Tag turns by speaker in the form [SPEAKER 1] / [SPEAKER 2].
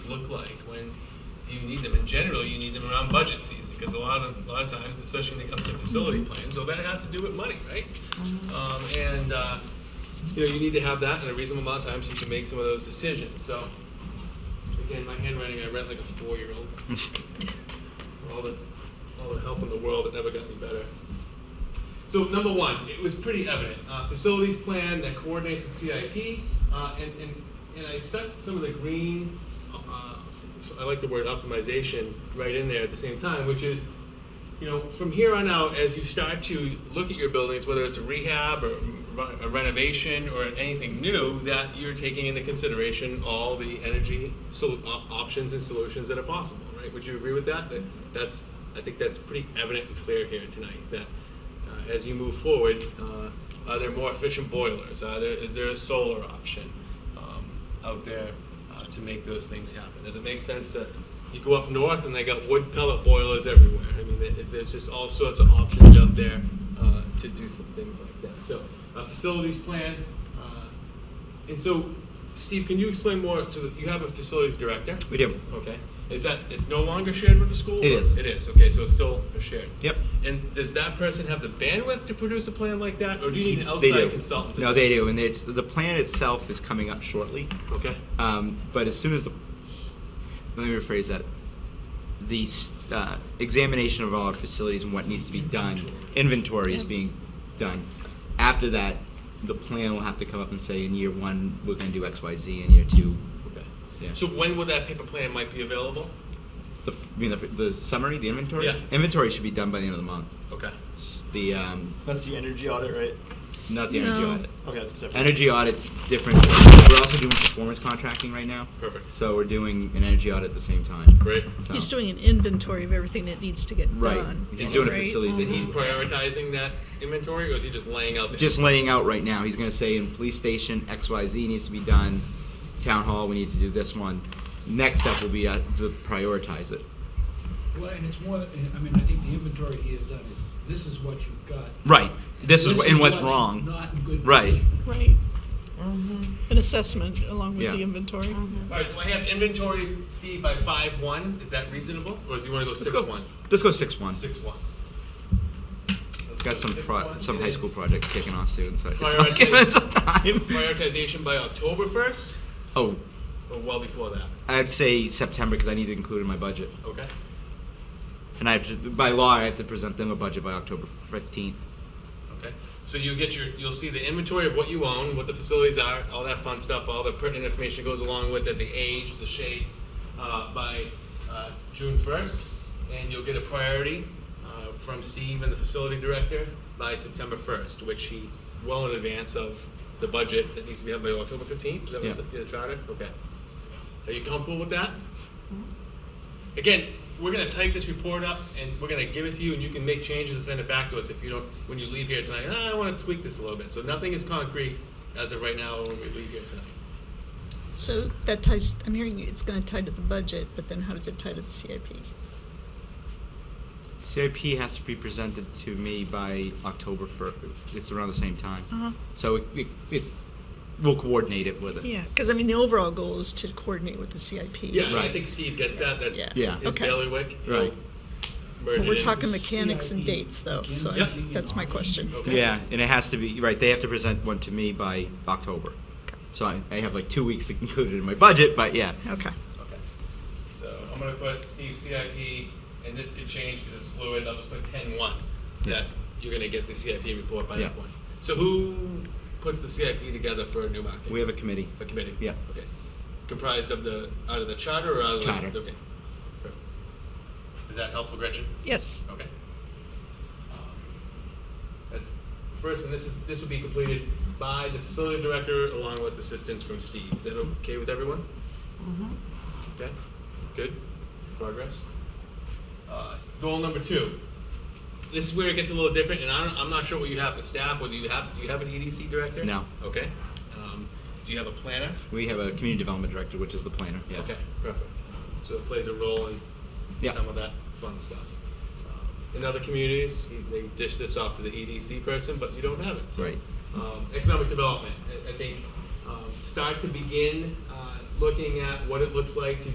[SPEAKER 1] look like? When do you need them? In general, you need them around budget season, because a lot of, a lot of times, especially when it comes to facility plans, well, that has to do with money, right? Um, and, uh, you know, you need to have that in a reasonable amount of time so you can make some of those decisions, so. Again, my handwriting, I read like a four-year-old. All the, all the help in the world, it never got me better. So number one, it was pretty evident, uh, facilities plan that coordinates with CIP, uh, and, and, and I stuck some of the green, uh, so I like the word optimization right in there at the same time, which is, you know, from here on out, as you start to look at your buildings, whether it's a rehab or re- a renovation or anything new, that you're taking into consideration all the energy so, op- options and solutions that are possible, right? Would you agree with that? That that's, I think that's pretty evident and clear here tonight, that uh, as you move forward, uh, are there more efficient boilers? Are there, is there a solar option um, out there uh, to make those things happen? Does it make sense to, you go up north and they got wood pellet boilers everywhere? I mean, there- there's just all sorts of options out there uh, to do some things like that. So, a facilities plan, uh, and so, Steve, can you explain more to, the- you have a facilities director?
[SPEAKER 2] We do.
[SPEAKER 1] Okay. Is that, it's no longer shared with the school?
[SPEAKER 2] It is.
[SPEAKER 1] It is, okay, so it's still shared.
[SPEAKER 2] Yep.
[SPEAKER 1] And does that person have the bandwidth to produce a plan like that, or do you need an
[SPEAKER 2] They
[SPEAKER 1] outside
[SPEAKER 2] do.
[SPEAKER 1] consultant?
[SPEAKER 2] No, they do, and it's, the plan itself is coming up shortly.
[SPEAKER 1] Okay.
[SPEAKER 2] Um, but as soon as the, let me rephrase that. The s- uh, examination of all our facilities and what needs to be done, inventory is being done. After that, the plan will have to come up and say, in year one, we're gonna do X, Y, Z, in year two.
[SPEAKER 1] Okay.
[SPEAKER 2] Yeah.
[SPEAKER 1] So when will that paper plan might be available?
[SPEAKER 2] The, f- you mean, the, the summary, the inventory?
[SPEAKER 1] Yeah.
[SPEAKER 2] Inventory should be done by the end of the month.
[SPEAKER 1] Okay.
[SPEAKER 2] The, um,
[SPEAKER 3] That's the energy audit, right?
[SPEAKER 2] not the energy
[SPEAKER 4] No.
[SPEAKER 2] audit.
[SPEAKER 3] Okay, that's separate.
[SPEAKER 2] Energy audit's different. We're also doing performance contracting right now.
[SPEAKER 1] Perfect.
[SPEAKER 2] So we're doing an energy audit at the same time.
[SPEAKER 1] Great.
[SPEAKER 2] So-
[SPEAKER 4] He's doing an inventory of everything that needs to get
[SPEAKER 2] Right.
[SPEAKER 4] done.
[SPEAKER 2] He's doing a
[SPEAKER 4] right?
[SPEAKER 2] facilities that
[SPEAKER 1] He's
[SPEAKER 2] he's
[SPEAKER 1] prioritizing that inventory, or is he just laying out? the-
[SPEAKER 2] just laying out right now. He's gonna say in police station, X, Y, Z needs to be done. Town hall, we need to do this one. Next step will be uh, to prioritize it.
[SPEAKER 5] Well, and it's more, I mean, I think the inventory he has done is, this is what you've got.
[SPEAKER 2] Right. This is, wh- and what's
[SPEAKER 5] Not in good.
[SPEAKER 2] Right.
[SPEAKER 5] condition.
[SPEAKER 4] Right. An assessment along with
[SPEAKER 2] Yeah.
[SPEAKER 4] the inventory.
[SPEAKER 1] All right. So I have inventory, Steve, by five one. Is that reasonable, or does he want to go
[SPEAKER 2] Let's
[SPEAKER 1] six
[SPEAKER 2] go-
[SPEAKER 1] one?
[SPEAKER 2] Let's go six one.
[SPEAKER 1] Six one. Let's
[SPEAKER 2] Got
[SPEAKER 1] go
[SPEAKER 2] some
[SPEAKER 1] six
[SPEAKER 2] pro,
[SPEAKER 1] one,
[SPEAKER 2] some
[SPEAKER 1] and
[SPEAKER 2] high
[SPEAKER 1] then
[SPEAKER 2] school project kicking off soon, so it's
[SPEAKER 1] Prioritize.
[SPEAKER 2] not giving us a time.
[SPEAKER 1] Prioritization by October first,
[SPEAKER 2] Oh,
[SPEAKER 1] or well before that.
[SPEAKER 2] I'd say September because I need to include it in my budget.
[SPEAKER 1] Okay.
[SPEAKER 2] And I have to, by law, I have to present them a budget by October fifteenth.
[SPEAKER 1] Okay, so you get your, you'll see the inventory of what you own, what the facilities are, all that fun stuff, all the pertinent information goes along with it, the age, the shape, uh, by, uh, June first. And you'll get a priority, uh, from Steve and the facility director by September first, which he, well in advance of the budget that needs to be out by October fifteenth, is that what's
[SPEAKER 2] Yeah.
[SPEAKER 1] in the charter? Okay. Are you comfortable with that? Again, we're gonna type this report up and we're gonna give it to you and you can make changes and send it back to us if you don't, when you leave here tonight, "Ah, I wanna tweak this a little bit, so nothing is concrete as of right now when we leave here tonight.
[SPEAKER 4] So that ties, I'm hearing it's gonna tie to the budget, but then how does it tie to the CIP?
[SPEAKER 2] CIP has to be presented to me by October first. It's around the same time.
[SPEAKER 4] Uh-huh.
[SPEAKER 2] So it, it, it, we'll coordinate it with it.
[SPEAKER 4] Yeah, because I mean, the overall goal is to coordinate with the CIP.
[SPEAKER 1] Yeah, and I
[SPEAKER 2] Right.
[SPEAKER 1] think Steve gets that, that's
[SPEAKER 2] Yeah.
[SPEAKER 1] his
[SPEAKER 4] Okay.
[SPEAKER 1] bailiwick. He'll
[SPEAKER 2] Right.
[SPEAKER 1] merge
[SPEAKER 4] But
[SPEAKER 1] it
[SPEAKER 4] we're
[SPEAKER 1] in.
[SPEAKER 4] talking mechanics and
[SPEAKER 5] CIP.
[SPEAKER 4] dates though, so I-
[SPEAKER 5] Yes.
[SPEAKER 4] that's my question.
[SPEAKER 1] Okay.
[SPEAKER 2] Yeah, and it has to be, right, they have to present one to me by October. So I, I have like two weeks included in my budget, but yeah.
[SPEAKER 4] Okay,
[SPEAKER 1] Okay. So I'm gonna put Steve CIP, and this could change because it's fluid, I'll just put ten one, that you're gonna get the CIP report by that
[SPEAKER 2] Yeah.
[SPEAKER 1] point. So who puts the CIP together for New Market?
[SPEAKER 2] We have a committee.
[SPEAKER 1] A committee?
[SPEAKER 2] Yeah.
[SPEAKER 1] Okay. Comprised of the, out of the charter or out of the?
[SPEAKER 2] Charter.
[SPEAKER 1] Okay. Perfect. Is that helpful, Gretchen?
[SPEAKER 4] yes,
[SPEAKER 1] Okay. Um, That's, first, and this is, this will be completed by the facility director along with assistance from Steve. Is that okay with everyone? Okay, good, progress. Uh, Goal number two. This is where it gets a little different, and I don't, I'm not sure what you have for staff, whether you have, you have an EDC director?
[SPEAKER 2] No.
[SPEAKER 1] Okay. Um, Do you have a planner?
[SPEAKER 2] We have a community development director, which is the planner, yeah.
[SPEAKER 1] Okay, perfect. Um, So it plays a role in
[SPEAKER 2] Yeah.
[SPEAKER 1] some of that fun stuff. Um, In other communities, you- they dish this off to the EDC person, but you don't have it. So,
[SPEAKER 2] Right.
[SPEAKER 1] um, Economic development, I- I think, um, start to begin uh, looking at what it looks like to